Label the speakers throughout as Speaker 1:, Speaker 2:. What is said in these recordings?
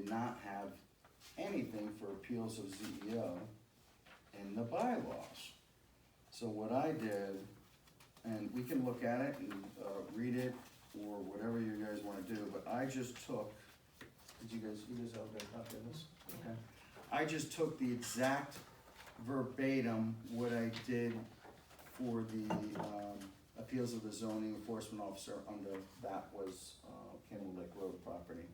Speaker 1: not have anything for appeals of ZEO in the bylaws. So what I did, and we can look at it and, uh, read it, or whatever you guys wanna do, but I just took, did you guys, you guys all got a copy of this? Okay. I just took the exact verbatim what I did for the, um, appeals of the zoning enforcement officer under, that was, uh, Campbell Lake Road property.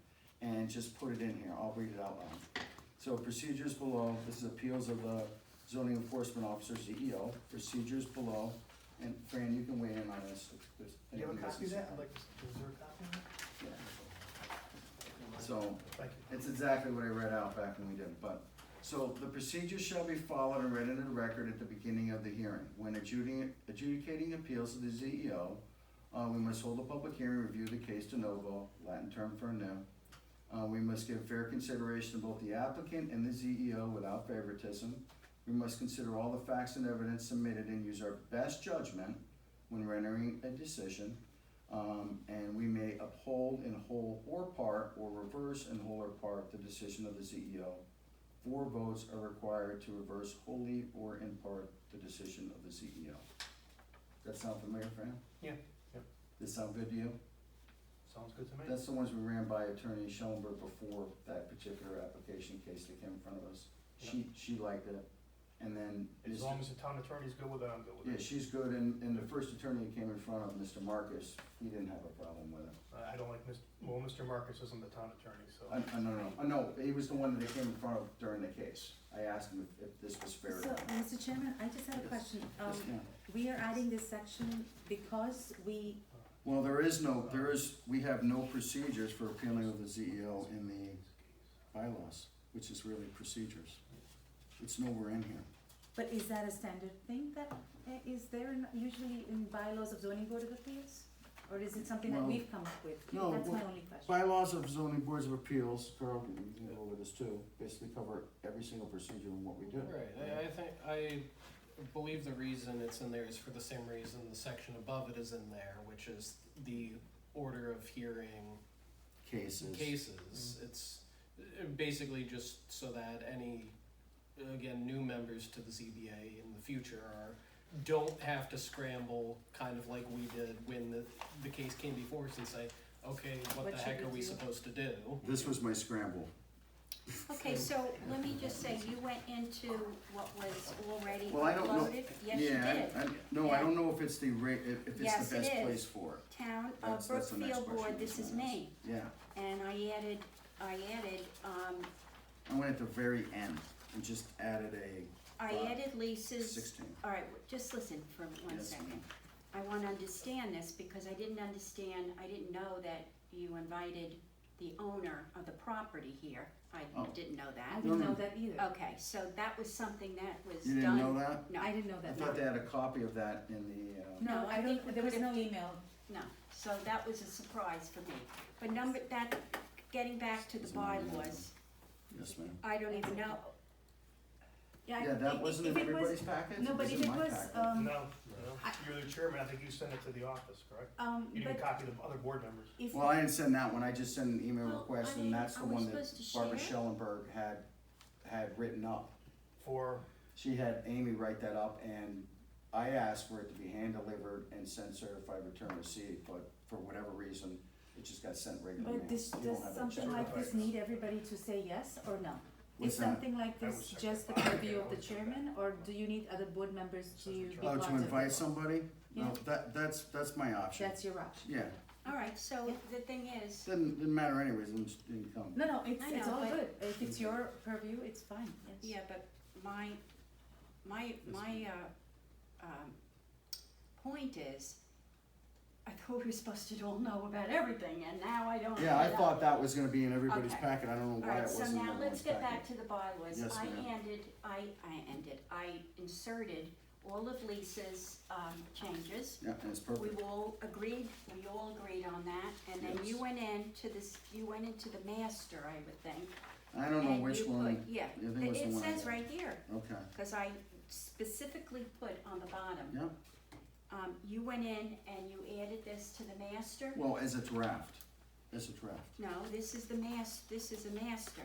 Speaker 1: And just put it in here, I'll read it out loud. So procedures below, this is appeals of the zoning enforcement officer, CEO, procedures below, and Fran, you can weigh in on this. if there's
Speaker 2: Do you have a
Speaker 1: anything that's-
Speaker 2: copy of that? I'd like, to is there a copy of that?
Speaker 1: Yeah. So,
Speaker 2: Thank you.
Speaker 1: it's exactly what I read out back when we did, it, but, so the procedure shall be followed and read into the record at the beginning of the hearing. When adjudicating, adjudicating appeals to the CEO, uh, we must hold a public hearing, review the case de novo, Latin term for new. Uh, we must give fair consideration to both the applicant and the CEO without favoritism. We must consider all the facts and evidence submitted and use our best judgment when rendering a decision. Um, and we may uphold in whole or part, or reverse in whole or part, the decision of the CEO. Four votes are required to reverse wholly or in part the decision of the CEO. That sound familiar, Fran?
Speaker 2: Yeah, yep.
Speaker 1: Does sound good to you?
Speaker 2: Sounds good to me.
Speaker 1: That's the ones we ran by Attorney Schoenberg before that particular application case that came in front of us. She, she liked it, and then.
Speaker 2: As
Speaker 1: Mr.
Speaker 2: long as the town attorney's good with it, I'm good
Speaker 1: Yeah,
Speaker 2: with it.
Speaker 1: she's good, and, and the first attorney that came in front of Mr. Marcus, he didn't have a problem with it.
Speaker 2: I I don't like Mr., well, Mr. Marcus isn't the town attorney, so.
Speaker 1: I, I no, no, no, he was the one that they came in front of during the case. I asked him if, if this was
Speaker 3: So,
Speaker 1: fair. or not.
Speaker 4: um,
Speaker 3: Mr. Chairman, I just had a
Speaker 1: Yes.
Speaker 3: question. Um,
Speaker 1: Yes, ma'am.
Speaker 3: we are adding this section because we,
Speaker 1: Well, there is no, there is, we have no procedures for appealing of the ZEO in the bylaws, which is really procedures. It's nowhere in here.
Speaker 3: but is that a standard thing that uh, is there in- usually in bylaws of zoning board of appeals? Or is it something that
Speaker 1: Well,
Speaker 3: we've come up with?
Speaker 1: no,
Speaker 3: That's my
Speaker 1: well,
Speaker 3: only question.
Speaker 1: Bylaws of zoning boards of appeals, Carl, you can go over this too, basically cover every single procedure and what we do.
Speaker 5: Right, I, I think, I believe the reason it's in there is for the same reason the section above it is in there, which is the order of hearing
Speaker 1: Cases.
Speaker 3: Mm-hmm.
Speaker 5: cases. It's uh, basically just so that any, again, new members to the ZBA in the future are, don't have to scramble, kind of like we did when the, the case came before us and say, okay, what
Speaker 3: What
Speaker 5: the
Speaker 3: should
Speaker 5: heck
Speaker 3: we
Speaker 5: are we
Speaker 3: do?"
Speaker 5: supposed to do?
Speaker 1: This was my scramble.
Speaker 4: Okay, so let me just say, you went into what was already uploaded?
Speaker 1: Well, I don't know-
Speaker 4: Yes, you
Speaker 1: Yeah,
Speaker 4: did.
Speaker 1: I, I, no, I
Speaker 4: Yeah.
Speaker 1: don't know if it's the ra- if, if it's
Speaker 4: Yes,
Speaker 1: the
Speaker 4: it
Speaker 1: best
Speaker 4: is.
Speaker 1: place for it.
Speaker 4: Town
Speaker 1: That's-
Speaker 4: of
Speaker 1: that's the next
Speaker 4: Brookfield Board,
Speaker 1: question
Speaker 4: this is
Speaker 1: gonna ask.
Speaker 4: me,
Speaker 1: Yeah,
Speaker 4: and I added, I added, um,
Speaker 1: I went at the very end and just added a
Speaker 4: I
Speaker 1: Wow.
Speaker 4: added Lisa's,
Speaker 1: sixteen.
Speaker 4: all right, just listen for one
Speaker 1: Yes,
Speaker 4: second. I wanna understand this, because I didn't understand, I didn't know that you invited the owner of the property here, I
Speaker 1: Oh.
Speaker 4: didn't know
Speaker 3: I
Speaker 4: that.
Speaker 3: didn't
Speaker 1: no,
Speaker 3: know
Speaker 1: no.
Speaker 3: that either.
Speaker 4: Okay, so that was something that was
Speaker 1: You
Speaker 4: done.
Speaker 1: didn't know that?
Speaker 4: No.
Speaker 3: I didn't know
Speaker 1: I
Speaker 3: that.
Speaker 1: thought they had a copy of that in the, uh,
Speaker 3: No,
Speaker 4: No, I
Speaker 3: I
Speaker 4: think
Speaker 3: don't,
Speaker 4: we
Speaker 3: there was no
Speaker 4: could've-
Speaker 3: email.
Speaker 4: No, so that was a surprise for me. But number, that, getting back to the bylaws,
Speaker 1: yes, ma'am.
Speaker 4: I don't even know,
Speaker 3: I-
Speaker 1: Yeah,
Speaker 3: if-
Speaker 1: that wasn't
Speaker 3: if
Speaker 1: in
Speaker 3: it was-
Speaker 1: everybody's package?
Speaker 3: No, but
Speaker 1: was
Speaker 3: if
Speaker 1: in
Speaker 3: it
Speaker 1: my
Speaker 3: was,
Speaker 1: packet.
Speaker 2: No,
Speaker 3: um,
Speaker 2: no, you're the chairman, I think you sent it to the office, correct?
Speaker 3: um,
Speaker 2: You didn't
Speaker 3: but
Speaker 2: copy the other board members.
Speaker 3: if,
Speaker 1: Well, I didn't send that one, I just sent an email
Speaker 4: Well,
Speaker 1: request,
Speaker 4: I
Speaker 1: and
Speaker 4: mean,
Speaker 1: that's the
Speaker 4: are we
Speaker 1: one that
Speaker 4: supposed to
Speaker 1: Barbara
Speaker 4: share?
Speaker 1: Schellenberg had, had written up.
Speaker 2: For,
Speaker 1: She had Amy write that up, and I asked for it to be hand-delivered and sent certified return receipt, but for whatever reason, it just got sent regular mail.
Speaker 3: but this,
Speaker 1: You don't
Speaker 3: does
Speaker 1: have that
Speaker 3: something
Speaker 1: check.
Speaker 3: like this
Speaker 2: certified.
Speaker 3: need everybody to say yes or no?
Speaker 1: What's
Speaker 3: Is
Speaker 1: that?
Speaker 3: something like
Speaker 2: I would
Speaker 3: this
Speaker 2: check
Speaker 3: just the
Speaker 2: the file.
Speaker 3: purview of
Speaker 2: Okay,
Speaker 3: the
Speaker 2: I'll check
Speaker 3: chairman, or do you need other board members to
Speaker 2: Says the
Speaker 3: be
Speaker 2: chairman.
Speaker 3: part
Speaker 1: Oh,
Speaker 3: of it?
Speaker 1: to invite somebody? No,
Speaker 3: Yeah.
Speaker 1: that, that's, that's my option.
Speaker 3: That's your option.
Speaker 1: Yeah,
Speaker 4: all right, so the thing is,
Speaker 1: didn't, didn't matter anyways, I'm just, didn't come.
Speaker 3: No, no, it's,
Speaker 4: I
Speaker 3: it's
Speaker 4: know,
Speaker 3: all
Speaker 4: but-
Speaker 3: good. If it's your purview, it's fine, yes.
Speaker 4: yeah, but my, my, my, uh, um, point is, I thought we were supposed to all know about everything, and now I don't.
Speaker 1: Yeah, I
Speaker 4: know.
Speaker 1: thought that was gonna be in everybody's
Speaker 4: Okay.
Speaker 1: packet, I don't know
Speaker 4: All
Speaker 1: why it
Speaker 4: right, so
Speaker 1: wasn't in
Speaker 4: now
Speaker 1: everyone's
Speaker 4: let's get back
Speaker 1: packet.
Speaker 4: to the bylaws.
Speaker 1: Yes,
Speaker 4: I
Speaker 1: ma'am.
Speaker 4: ended, I, I ended, I inserted all of Lisa's, um, changes.
Speaker 1: Yeah, and it's
Speaker 4: We
Speaker 1: perfect.
Speaker 4: all agreed, we all agreed on that, and then you
Speaker 1: Yes.
Speaker 4: went into this, you went into the master, I would think.
Speaker 1: I don't
Speaker 4: and
Speaker 1: know which
Speaker 4: you
Speaker 1: one,
Speaker 4: put- Yeah,
Speaker 1: I think it was
Speaker 4: it
Speaker 1: the
Speaker 4: it
Speaker 1: one I
Speaker 4: says
Speaker 1: did.
Speaker 4: right here,
Speaker 1: okay,
Speaker 4: cause I specifically put on the bottom.
Speaker 1: yeah,
Speaker 4: Um, you went in and you added this to the master?
Speaker 1: well, as a draft, as a draft.
Speaker 4: No, this is the mas, this is a master.